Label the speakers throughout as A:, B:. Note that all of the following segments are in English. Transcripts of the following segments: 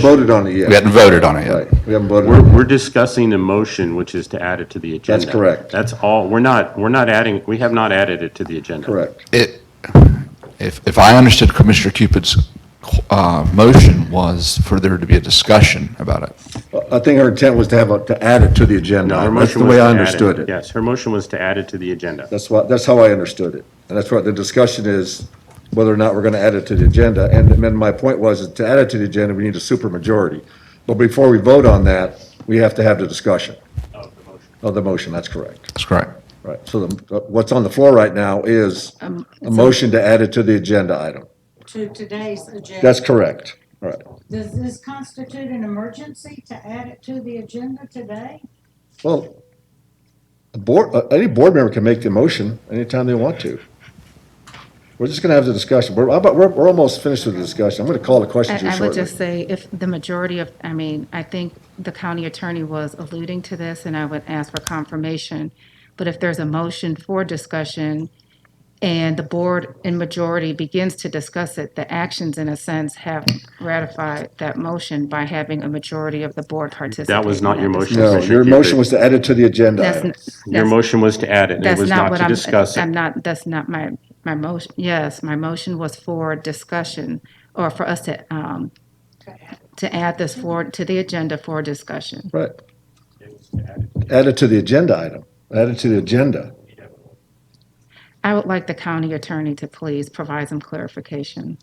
A: Voted on it yet.
B: We hadn't voted on it yet.
A: Right, we haven't voted.
C: We're,
A: on it.
C: we're discussing a motion, which is to add it to the agenda.
A: correct.
C: That's all, we're not, we're not adding, we have not added it to the agenda.
A: Correct.
B: It, if, if I understood Commissioner Cupid's, uh, motion was for there to be a discussion about it.
A: I think her intent was to have, a- to add it to the agenda.
C: No, her
A: That's the
C: motion was
A: way
C: to
A: I
C: add
A: understood it.
C: Yes, her motion was to add it to the agenda.
A: That's what, that's how I understood it. And that's what the discussion is, whether or not we're going to add it to the agenda. And then my point was, to add it to the agenda, we need a supermajority. But before we vote on that, we have to have the discussion of the motion, that's correct.
B: That's correct.
A: Right, so the- what's on the floor right now is a motion to add it to the agenda item.
D: to today's agenda.
A: That's correct, all right.
D: Does this constitute an emergency to add it to the agenda today?
A: Well, a board, uh, any board member can make the motion anytime they want to. We're just gonna have the discussion. We're, about- we're, we're almost finished with the discussion. I'm gonna call the questions here
E: I I would
A: shortly.
E: just say, if the majority of, I mean, I think the county attorney was alluding to this, and I would ask for confirmation, but if there's a motion for discussion, and the board in majority begins to discuss it, the actions, in a sense, have ratified that motion by having a majority of the board participate.
C: That was not
E: in
C: your
E: that
C: motion.
E: discussion.
A: No, your motion was to add it to the agenda
E: That's,
A: item.
E: n-
C: Your
E: that's-
C: motion was to add it, and it
E: that's
C: was
E: not
C: not
E: what
C: to
E: I'm,
C: discuss
E: I'm
C: it.
E: not, that's not my, my motion, yes, my motion was for discussion, or for us to, um, to add this forward to the agenda for discussion.
A: Right. Add it to the agenda item. Add it to the agenda.
E: I would like the county attorney to please provide some clarification.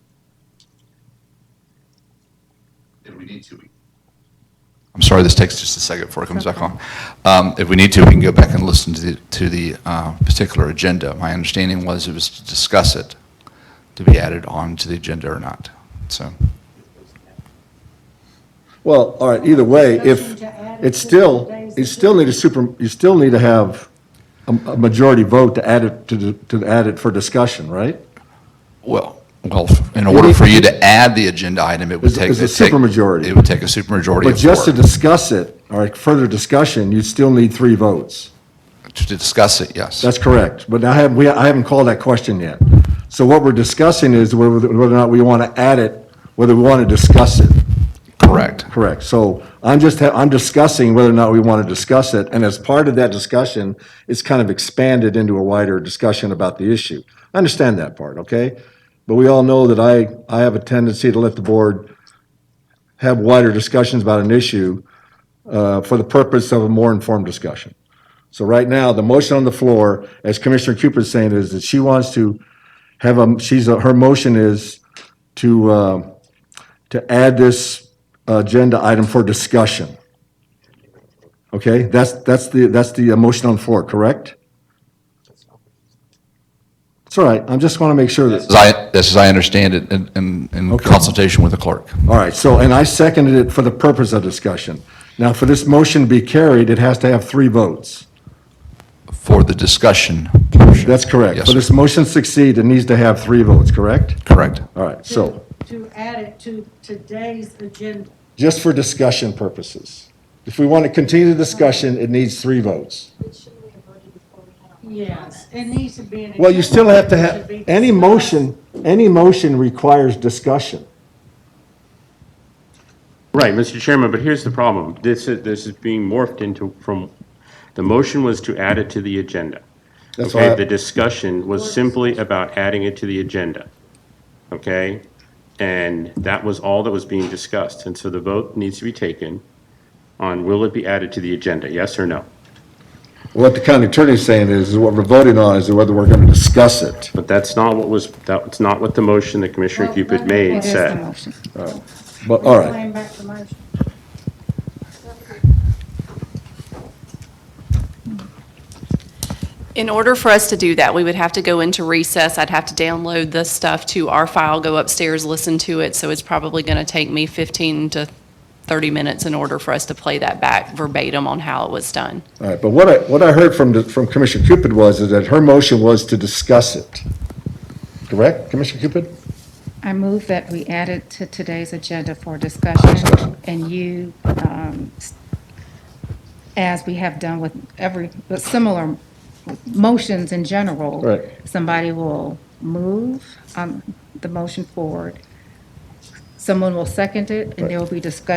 B: I'm sorry, this takes just a second before it comes back on. Um, If we need to, we can go back and listen to the, to the uh, particular agenda. My understanding was it was to discuss it, to be added on to the agenda or not. So,
A: Well, all right, either way, if,
D: Motion to add it
A: it's
D: to
A: still,
D: today's
A: you still need a super, you still need to have a, a majority vote to add it, to, the- to add it for discussion, right?
B: well, well, in order for you to add the agenda item, it would
A: It's-
B: take.
A: it's a
B: it'd take-
A: supermajority.
B: It would take a supermajority
A: But
B: of
A: just to
B: four.
A: discuss it, or further discussion, you still need three votes.
B: To discuss it, yes.
A: That's correct, but I haven't, we, I haven't called that question yet. So what we're discussing is whether, whether or not we want to add it, whether we want to discuss it,
B: Correct.
A: correct? So I'm just, ha- I'm discussing whether or not we want to discuss it, and as part of that discussion, it's kind of expanded into a wider discussion about the issue. I understand that part, okay? But we all know that I, I have a tendency to let the board have wider discussions about an issue uh, for the purpose of a more informed discussion. So right now, the motion on the floor, as Commissioner Cooper is saying, is that she wants to have a, she's, a- her motion is to, uh, to add this agenda item for discussion. Okay, that's, that's the, that's the uh, motion on the floor, correct? It's all right, I just want to make sure that,
B: As I, that's as I understand it, in- in, in consultation with the clerk.
A: all right, so, and I seconded it for the purpose of discussion. Now, for this motion to be carried, it has to have three votes.
B: For the discussion portion.
A: That's correct.
B: Yes,
A: For this motion to succeed, it needs to have three votes, correct?
B: correct.
A: All right, so.
D: To add it to today's agenda.
A: just for discussion purposes. If we want to continue the discussion, it needs three votes.
D: Yes, it needs to be an.
A: Well, you still have to
D: agenda
A: have,
D: item. It should be
A: any
D: discussed.
A: motion, any motion requires discussion.
C: Right, Mr. Chairman, but here's the problem. This is, this is being morphed into, from, the motion was to add it to the agenda.
A: That's
C: Okay,
A: why-
C: the discussion was simply about adding it to the agenda, okay? And that was all that was being discussed, and so the vote needs to be taken on will it be added to the agenda, yes or no?
A: What the county attorney's saying is, is what we're voting on is whether we're going to discuss it.
C: But that's not what was, that's not what the motion that Commissioner
D: Well,
C: Cupid
D: let me-
C: made
E: It is the
C: said.
E: motion.
A: But, all right,
D: Claim back the motion.
F: In order for us to do that, we would have to go into recess. I'd have to download this stuff to our file, go upstairs, listen to it. So it's probably going to take me 15 to 30 minutes in order for us to play that back verbatim on how it was done.
A: all right. But what I, what I heard from, the- from Commissioner Cupid was is that her motion was to discuss it. Correct, Commissioner Cupid?
E: I move that we add it to today's agenda for discussion, and you, um, s- as we have done with every, with similar motions in general.
A: Right.
E: Somebody will move um, the motion forward, Someone will second it, and there will be discussion